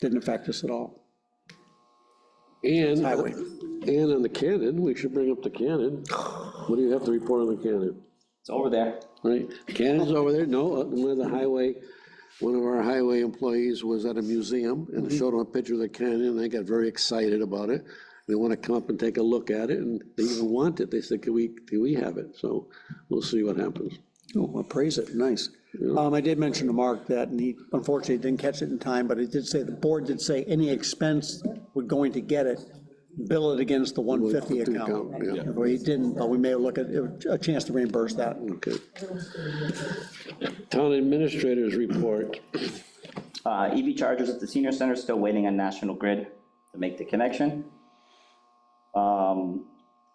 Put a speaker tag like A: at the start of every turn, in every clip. A: Didn't affect us at all.
B: And,
A: Highway.
B: and on the Canon, we should bring up the Canon. What do you have to report on the Canon?
C: It's over there.
B: Right, Canon's over there, no, uh, one of the highway, one of our highway employees was at a museum and showed them a picture of the cannon, and they got very excited about it. They want to come up and take a look at it, and they even want it, they said, can we, can we have it? So we'll see what happens.
A: Oh, well, praise it, nice. Um, I did mention to Mark that, and he unfortunately didn't catch it in time, but it did say, the board did say any expense we're going to get it, bill it against the 150 account.
B: Account, yeah.
A: If we didn't, but we may look at, a chance to reimburse that.
B: Okay. Town administrators report,
C: Uh, EV chargers at the senior center, still waiting on National Grid to make the connection. Um,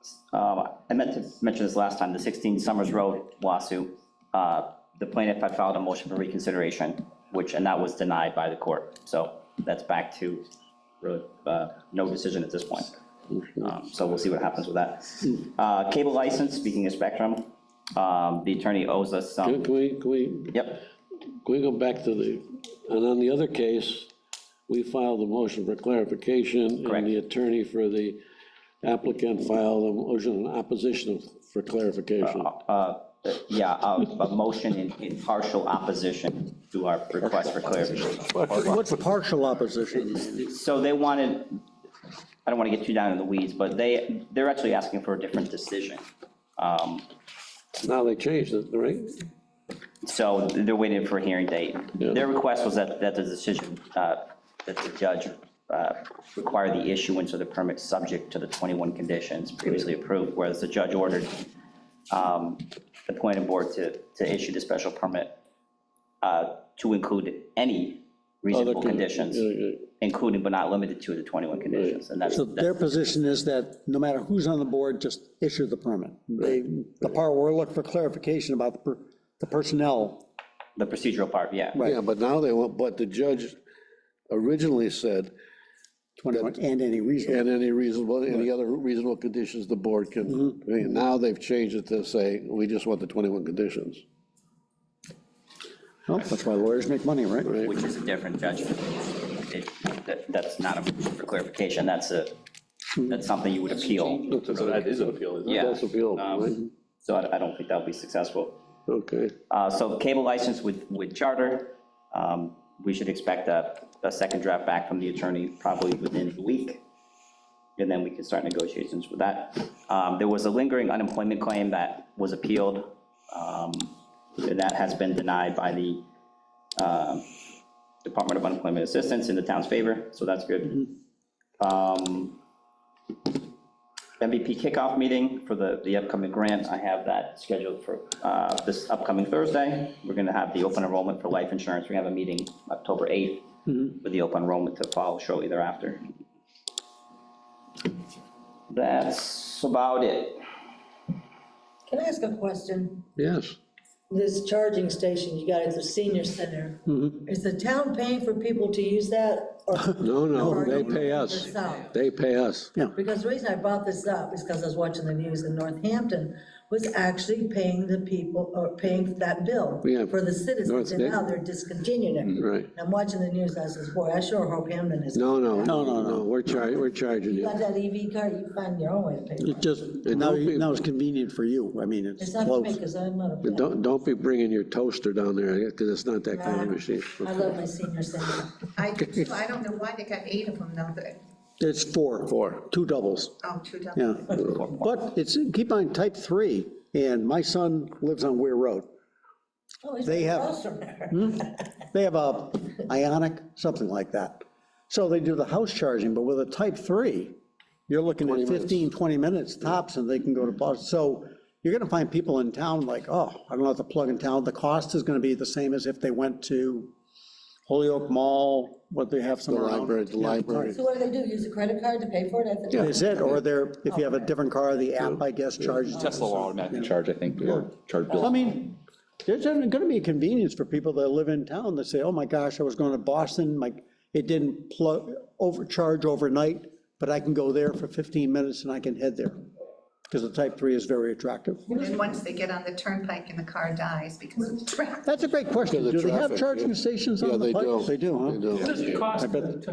C: s- uh, I meant to mention this last time, the 16 Summers Road lawsuit. uh, The plaintiff had filed a motion for reconsideration, which, and that was denied by the court. So that's back to really uh, no decision at this point. Um, So we'll see what happens with that. Uh, Cable license, speaking of Spectrum, um, the attorney owes
B: can
C: us some,
B: can we, can we
C: yep,
B: Can we go back to the, and on the other case, we filed a motion for clarification,
C: Correct.
B: and the attorney for the applicant filed a motion in opposition for clarification.
C: Uh, Yeah, a a motion in- in partial opposition to our request for clarification.
A: What's partial opposition?
C: So they wanted, I don't want to get too down in the weeds, but they, they're actually asking for a different decision. Um,
B: Now they changed it, right?
C: So they're waiting for a hearing date.
B: Yeah.
C: Their request was that, that the decision, uh, that the judge uh, require the issuance of the permit subject to the 21 conditions previously approved, whereas the judge ordered um, the planning board to, to issue the special permit uh, to include any
B: Other
C: reasonable conditions, including but not limited to the 21 conditions. And that's,
A: So their position is that no matter who's on the board, just issue the permit. They, the part we're looking for clarification about the per- the personnel,
C: the procedural part, yeah.
A: Right.
B: Yeah, but now they want, but the judge originally said,
A: 21, and any reason.
B: and any reasonable, any other reasonable conditions the board can, I mean, now they've changed it to say, we just want the 21 conditions.
A: Well, Oh, That's why lawyers make money, right?
C: which is a different judgment. It- that- That's not a motion for clarification, that's a, that's something you would appeal.
D: So that is an appeal, isn't it?
C: Yeah.
B: That's appealable, right?
C: Um, So I I don't think that'll be successful.
B: Okay,
C: Uh, So cable license with, with charter, um, we should expect a, a second draft back from the attorney probably within the week. And then we can start negotiations with that. Um, There was a lingering unemployment claim that was appealed. um, and That has been denied by the um, Department of Unemployment Assistance in the town's favor, so that's good. Um, MVP kickoff meeting for the, the upcoming grant, I have that scheduled for uh, this upcoming Thursday. We're going to have the open enrollment for life insurance, we have a meeting October 8th with the open enrollment to follow shortly thereafter. That's about it.
E: Can I ask a question?
B: yes.
E: This charging station you got at the senior center, is the town paying for people to use that? or-
B: Mm-hmm. No, no,
E: or
B: they
E: are you
B: pay
E: paying
B: us.
E: yourself?
B: They pay us.
E: Because the reason I brought this up is because I was watching the news in Northampton, was actually paying the people, or paying that bill
B: Yeah,
E: for the citizens, and
B: North-
E: now they're discontinuing it.
B: Mm, Right.
E: And I'm watching the news, I says, boy, I sure hope Hampton is, you
B: No, no,
A: No, no,
B: no, no, we're charging, we're charging you.
E: got that EV card, you find your own way to pay for
A: It
E: it.
A: just, now, you- now it's convenient for you. I mean, it's
E: It's not for me,
A: close.
E: because I'm not a.
B: And
E: fan.
B: Don't, don't be bringing your toaster down there, because it's not that kind of machine.
E: I love my senior center.
F: I do too. I don't know why they got eight of them though, but,
A: It's four. Four. Two doubles,
F: oh, two dollars.
A: yeah. But it's, keep on type three, and my son lives on Weir Road.
E: Oh, he's
A: They have-
E: across from there.
A: They have a Ionic, something like that. So they do the house charging, but with a type three, you're looking at 15, 20 minutes tops, and they can go to Boston. So you're gonna find people in town like, oh, I don't have to plug in town. The cost is gonna be the same as if they went to Holyoke Mall, what they have
B: The
A: somewhere around.
B: library, the library.
E: So what do they do, use a credit card to pay for it at the time?
A: Is it, or they're, if you have a different car, the app, I guess, charges. it.
D: Tesla will automatically charge, I think, or charge
A: I
D: bill.
A: mean, there's gonna be a convenience for people that live in town that say, oh my gosh, I was going to Boston, like, it didn't plug, overcharge overnight, but I can go there for 15 minutes and I can head there. Because the type three is very attractive.
F: And then once they get on the turnpike and the car dies because of traffic.
A: That's a great question.
B: Because
A: Do
B: of
A: they have
B: traffic,
A: charging
B: yeah.
A: stations
B: Yeah,
A: on
B: they
A: the
B: do.
A: bike? They do, huh?
B: They do.
G: What does it cost
A: bet-
G: to